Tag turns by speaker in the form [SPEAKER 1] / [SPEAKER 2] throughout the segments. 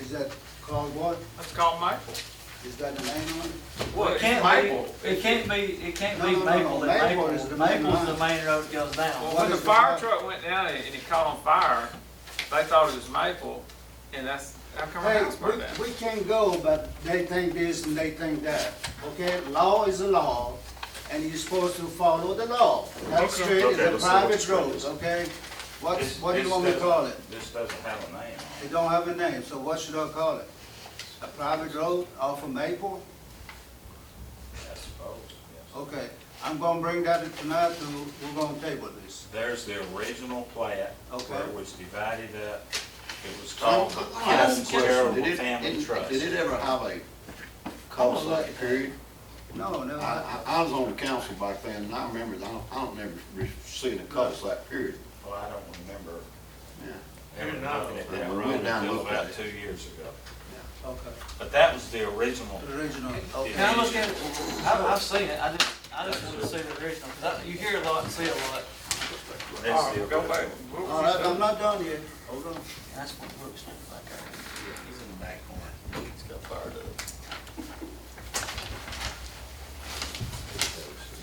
[SPEAKER 1] Is that called what?
[SPEAKER 2] That's called maple.
[SPEAKER 1] Is that the name on it?
[SPEAKER 3] Well, it
[SPEAKER 2] Maple.
[SPEAKER 3] can't be, it can't be, it can't
[SPEAKER 1] No,
[SPEAKER 3] be
[SPEAKER 1] no, no,
[SPEAKER 3] Maple,
[SPEAKER 1] no.
[SPEAKER 3] that
[SPEAKER 1] Maple
[SPEAKER 3] Maple,
[SPEAKER 1] is the main
[SPEAKER 3] Maple's the
[SPEAKER 1] line.
[SPEAKER 3] main road that goes
[SPEAKER 2] Well,
[SPEAKER 3] down.
[SPEAKER 1] What
[SPEAKER 2] when the
[SPEAKER 1] is the
[SPEAKER 2] fire
[SPEAKER 1] matter?
[SPEAKER 2] truck went down and and it caught on fire, they thought it was maple, and that's, how come our
[SPEAKER 1] Hey,
[SPEAKER 2] house burned down?
[SPEAKER 1] we, we can't go, but they think this and they think that, okay? Law is a law, and you're supposed to follow the law. That street is a
[SPEAKER 4] Okay, let's see what
[SPEAKER 1] private
[SPEAKER 4] the street
[SPEAKER 1] road,
[SPEAKER 4] is.
[SPEAKER 1] okay? What,
[SPEAKER 4] This-
[SPEAKER 1] what do you
[SPEAKER 4] this
[SPEAKER 1] want me to
[SPEAKER 4] doesn't-
[SPEAKER 1] call it?
[SPEAKER 4] This doesn't have a name on
[SPEAKER 1] It don't have a name, so what should I call it? A private road off of Maple?
[SPEAKER 4] it, I suppose. yes.
[SPEAKER 1] Okay, I'm gonna bring that tonight to, we're gonna table this.
[SPEAKER 4] There's the original plat where
[SPEAKER 1] Okay.
[SPEAKER 4] it was divided up. It was called the
[SPEAKER 5] Can I ask a
[SPEAKER 4] Holmes
[SPEAKER 5] question?
[SPEAKER 4] Oh, Terrible
[SPEAKER 5] Did it-
[SPEAKER 4] Family
[SPEAKER 5] did-
[SPEAKER 4] Trust.
[SPEAKER 5] Did it ever have a cul-de-sac period?
[SPEAKER 1] No, no,
[SPEAKER 5] I,
[SPEAKER 1] I-
[SPEAKER 5] I, I was on the council back then, and I remember, I don't, I don't never re- seen a cul-de-sac period.
[SPEAKER 4] Well, I don't remember
[SPEAKER 5] Yeah.
[SPEAKER 4] ever looking at that
[SPEAKER 5] We went
[SPEAKER 4] road
[SPEAKER 5] down and
[SPEAKER 4] until
[SPEAKER 5] looked at
[SPEAKER 4] about
[SPEAKER 5] it.
[SPEAKER 4] two years ago.
[SPEAKER 1] okay,
[SPEAKER 4] But that was the original.
[SPEAKER 1] the original, okay.
[SPEAKER 3] Can I look at, I've, I've seen it, I just, I just wanna see the original, 'cause I- you hear a lot and see a lot.
[SPEAKER 4] that's the
[SPEAKER 2] All right, go back.
[SPEAKER 4] original.
[SPEAKER 2] What was
[SPEAKER 1] All right,
[SPEAKER 2] that?
[SPEAKER 1] I'm not done yet, hold on.
[SPEAKER 3] That's what Brooks looks like, he's in the back corner, he's got fired up.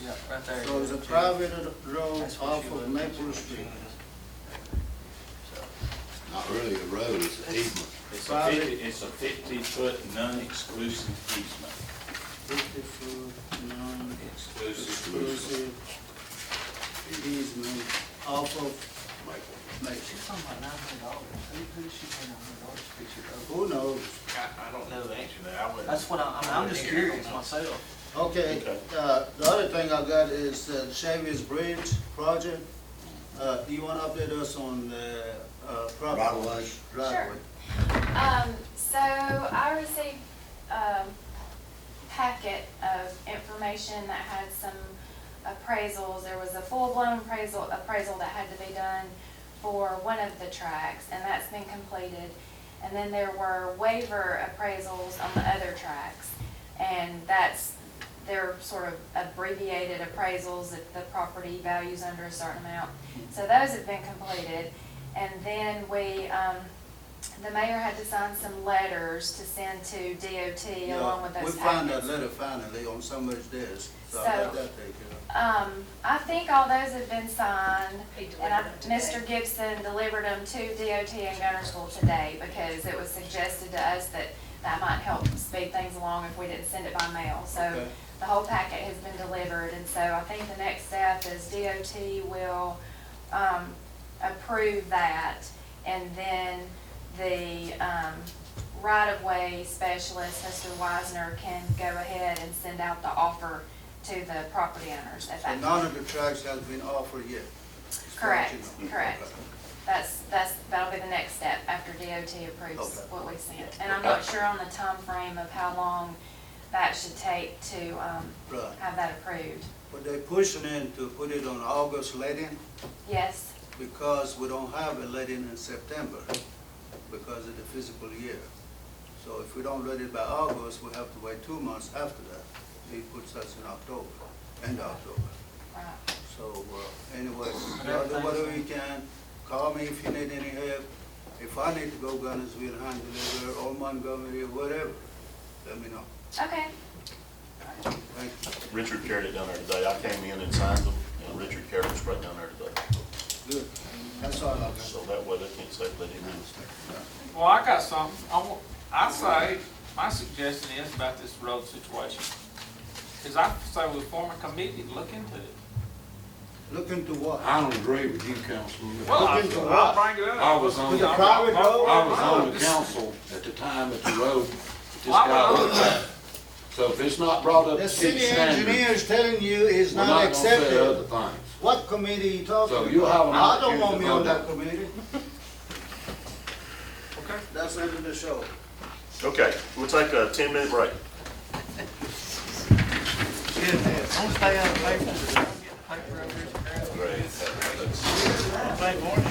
[SPEAKER 3] Yeah, right there.
[SPEAKER 1] So it's a private road
[SPEAKER 3] That's what
[SPEAKER 1] off
[SPEAKER 3] she
[SPEAKER 1] of
[SPEAKER 3] looked-
[SPEAKER 1] Maple Street.
[SPEAKER 5] Not really a road, it's an easement.
[SPEAKER 4] It's a
[SPEAKER 1] Private.
[SPEAKER 4] fifty, it's a fifty-foot non-exclusive easement.
[SPEAKER 1] Fifty-foot
[SPEAKER 4] Exclusive.
[SPEAKER 1] non-exclusive easement off of Maple.
[SPEAKER 3] She's talking about nine hundred dollars, who, who she paying nine hundred dollars to fix your road?
[SPEAKER 1] Who knows?
[SPEAKER 4] I, I don't know the answer to that. I wouldn't-
[SPEAKER 3] That's what I, I mean, I'm just curious myself.
[SPEAKER 1] Okay,
[SPEAKER 4] Okay.
[SPEAKER 1] uh, the other thing I got is uh, Chevy's Bridge project. Uh, do you want to update us on the, uh, property?
[SPEAKER 5] Right away.
[SPEAKER 1] Right away.
[SPEAKER 6] Um, so I um, received a packet of information that had some appraisals. There was a full-blown appraisal, appraisal that had to be done for one of the tracks, and that's been completed. And then there were waiver appraisals on the other tracks. And that's, they're sort of abbreviated appraisals if the property value's under a certain amount. So those have been completed. And then we, um, the mayor had to sign some letters to send to DOT
[SPEAKER 1] Yeah,
[SPEAKER 6] along uh, with
[SPEAKER 1] We
[SPEAKER 6] those
[SPEAKER 1] found
[SPEAKER 6] packets.
[SPEAKER 1] that letter finally on somebody's desk, so I
[SPEAKER 6] So-
[SPEAKER 1] got that taken care of.
[SPEAKER 6] Um, I think all those have been signed.
[SPEAKER 7] He
[SPEAKER 6] And I,
[SPEAKER 7] delivered them today.
[SPEAKER 6] Mr. Gibson delivered them to DOT and Gunner School today because it was suggested to us that that might help speed things along if we didn't send it by mail. So
[SPEAKER 1] Okay.
[SPEAKER 6] the whole packet has been delivered, and so I think the next step is DOT will, um, approve that. And then the, um, right-of-way specialist, Mr. Wisner, can go ahead and send out the offer to the property owners at
[SPEAKER 1] So
[SPEAKER 6] that
[SPEAKER 1] none
[SPEAKER 6] point.
[SPEAKER 1] of the tracks has been offered yet.
[SPEAKER 6] Correct,
[SPEAKER 1] Okay.
[SPEAKER 6] correct. That's, that's, that'll be the next step after DOT approves
[SPEAKER 1] Okay.
[SPEAKER 6] what we sent. And I'm not sure on the time frame of how long that should take to, um,
[SPEAKER 1] Right,
[SPEAKER 6] have that approved.
[SPEAKER 1] but they pushing in to put it on August letting
[SPEAKER 6] Yes,
[SPEAKER 1] because we don't have a letting in September because of the fiscal year. So if we don't let it by August, we have to wait two months after that. He puts us in October, end of October.
[SPEAKER 6] right.
[SPEAKER 1] So, uh, anyway, y'all do whatever you can, call me if you need any help. If I need to go Gunnersville, hand deliver, or Montgomery, whatever, let me know.
[SPEAKER 6] Okay,
[SPEAKER 1] Thank you.
[SPEAKER 8] Richard carried it down there today. I came in and signed them, and Richard carried it right down there today.
[SPEAKER 1] Good. That's all I got.
[SPEAKER 8] So that way they can't say they didn't.
[SPEAKER 2] Well, I got something. I, wa- I say, my suggestion is about this road situation. Is I say we form a committee, to look into it.
[SPEAKER 1] Look into what?
[SPEAKER 5] I don't agree with you, Councilman.
[SPEAKER 2] Well, I-
[SPEAKER 1] Look into what?
[SPEAKER 2] I'll bring it up.
[SPEAKER 5] I was on-
[SPEAKER 2] I'll-
[SPEAKER 1] The private
[SPEAKER 2] I'll-
[SPEAKER 1] road?
[SPEAKER 5] I was
[SPEAKER 2] I'll-
[SPEAKER 5] on the council at the time that the road, this
[SPEAKER 2] Well, I
[SPEAKER 5] guy
[SPEAKER 2] was-
[SPEAKER 5] looked at. So if it's not brought up
[SPEAKER 1] The
[SPEAKER 5] to city
[SPEAKER 1] city
[SPEAKER 5] standard,
[SPEAKER 1] engineer is telling you it's
[SPEAKER 5] we're not
[SPEAKER 1] not
[SPEAKER 5] gonna say other
[SPEAKER 1] accepted.
[SPEAKER 5] things.
[SPEAKER 1] What committee you talking
[SPEAKER 5] So
[SPEAKER 1] about?
[SPEAKER 5] you'll have an
[SPEAKER 1] I don't
[SPEAKER 5] opportunity
[SPEAKER 1] want me
[SPEAKER 5] to
[SPEAKER 1] on
[SPEAKER 5] vote.
[SPEAKER 1] that committee.
[SPEAKER 2] Okay.
[SPEAKER 1] That's the end of the show.
[SPEAKER 8] Okay, we'll take a ten-minute break.
[SPEAKER 3] Don't stay out of paper, don't get the paper up here.
[SPEAKER 8] Great.